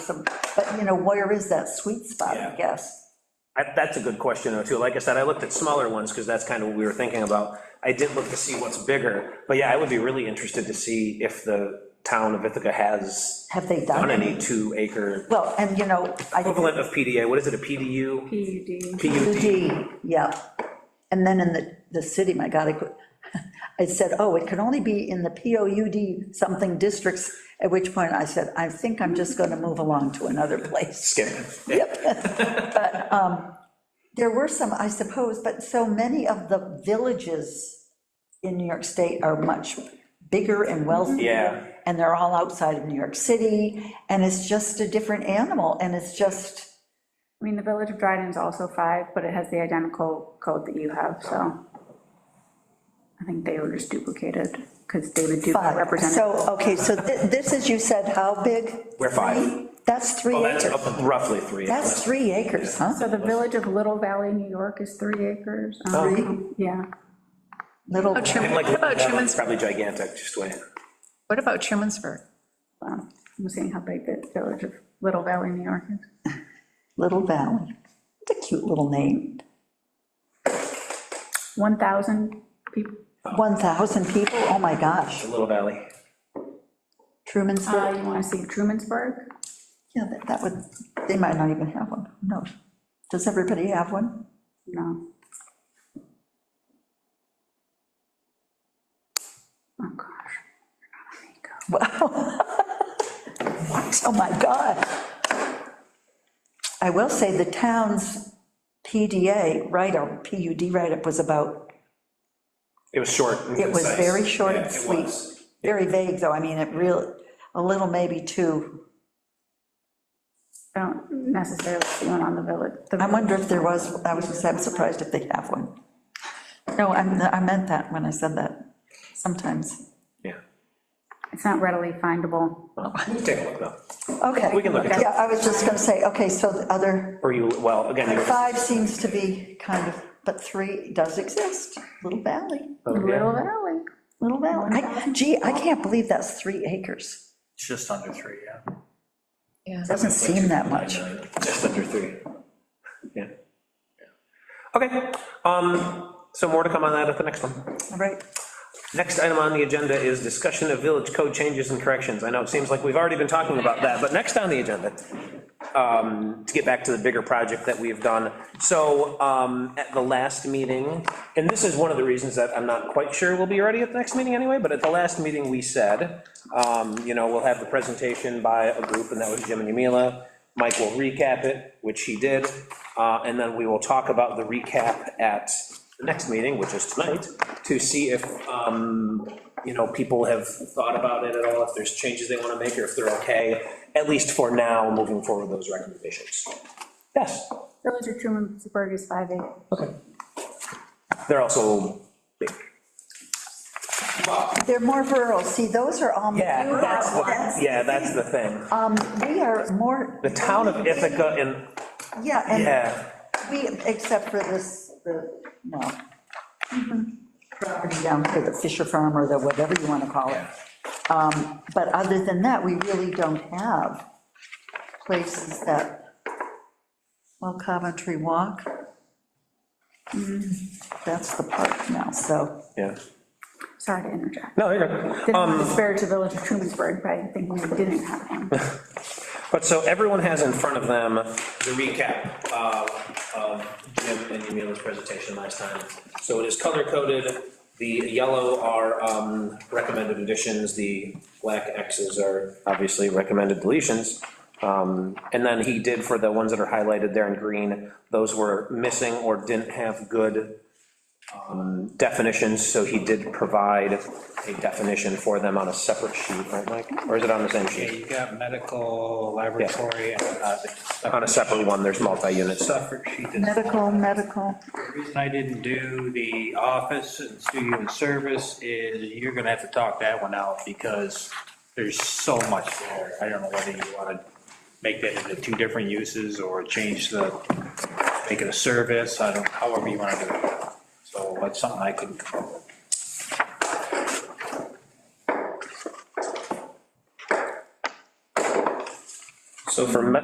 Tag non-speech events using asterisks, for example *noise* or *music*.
some, but you know, where is that sweet spot, I Yeah. guess? I- That's a good question, though, too. Like I said, I looked at smaller ones, because that's kind of what we were thinking about. I did look to see what's bigger, but yeah, I would be really interested to see if the town of Ithaca has Have they done done any any? two-acre Well, and you know, I, equivalent of PDA, what is it, a PDU? PUD. PUD. D, yeah. And then in the, the city, my God, I could, *laughs* I said, oh, it can only be in the POUD something districts, at which point I said, I think I'm just gonna move along to another *laughs* place. Skip. There were some, I suppose, but so many of the villages in New York State are much bigger and wealthier. Yeah. And they're all outside of New York City, and it's just a different animal, and it's just, I mean, the Village of Dryden's also five, but it has the identical code that you have, so. I think they were just duplicated, because David Duke five. represented. So, okay, so thi- this is, you said, how big? We're five. That's three Well, Oh, that's acres. up- roughly three. That's three acres, huh? So the Village of Little Valley, New York is three acres. um, Three? Yeah. Little, Oh, Truman- And like, What about that's Truman's, probably gigantic, just wait. what about Trumansburg? um, I'm seeing how big the Village of Little Valley, New York is. Little Valley. It's a cute little name. 1,000 people. Oh. 1,000 people, oh my gosh. Little Valley. Truman's, Uh, You want to see Trumansburg? yeah, that- that would, they might not even have one, Who knows? Does everybody have one? No. Oh, gosh. Wow. Oh, my God. I will say the town's PDA write-up, PUD write-up was about, It was short. and it was concise. very short Yeah, and it sweet. was. Very vague, though, I mean, it real, a little maybe too. I don't necessarily see one on the village. the I wonder if there was, I was, just- I'm surprised if they have one. No, I'm, I meant that when I said that, sometimes. Yeah. It's not readily findable. Well, Take a look, though. Okay. We can look at it. Yeah, I was just gonna say, okay, so the other. Or you, well, again, you were- Five seems to be kind of, but three does exist, Little Valley, oh, yeah. Little Valley. Little Valley. I- Gee, I can't believe that's three acres. It's just under three, yeah. Yeah. Doesn't seem that much. Just under three. Yeah. Okay, um, so more to come on that at the next one. All right, Next item on the agenda is discussion of village code changes and corrections. I know it seems like we've already been talking about that, but next on the agenda, um, to get back to the bigger project that we've done. So, um, at the last meeting, and this is one of the reasons that I'm not quite sure we'll be ready at the next meeting anyway, but at the last meeting, we said, um, you know, we'll have the presentation by a group, and that was Jim and Yumila. Mike will recap it, which he did, uh, and then we will talk about the recap at the next meeting, which is tonight, to see if, um, you know, people have thought about it at all, if there's changes they want to make, or if they're okay, at least for now, moving forward with those recommendations. Yes, Village of Trumansburg is five acres. they're also, they're more rural, see, those are all. yeah, You that's have what- lots. yeah, that's the thing. Um, we are more, The town of Ithaca and, yeah, and yeah, we, except for this, the, no. Property down here, the Fisher Farm or the whatever you want to call it. Um, But other than that, we really don't have places that, well, Coventry Walk. Mm, That's the park now, so, yeah. Sorry to interject. No, you're good. Didn't want to disparage the Village of Trumansburg, but I think we didn't have one. But so everyone has in front of them the recap uh, of Jim and Yamila's presentation last time. So it is color-coded, the yellow are um, recommended additions, the black Xs are obviously recommended deletions. Um, And then he did for the ones that are highlighted there in green, those were missing or didn't have good um, definitions, so he did provide a definition for them on a separate sheet, right, Mike? Or is it on the same sheet? Yeah, you got medical, laboratory, and uh, On a separate one, there's multi-unit the stuff. suffer sheet. medical, medical, The reason I didn't do the office and studio and service is you're gonna have to talk that one out because there's so much there. I don't know whether you wanna make that into two different uses or change the, make it a service, I don't, however you wanna do it. So that's something I couldn't come up with. So for me-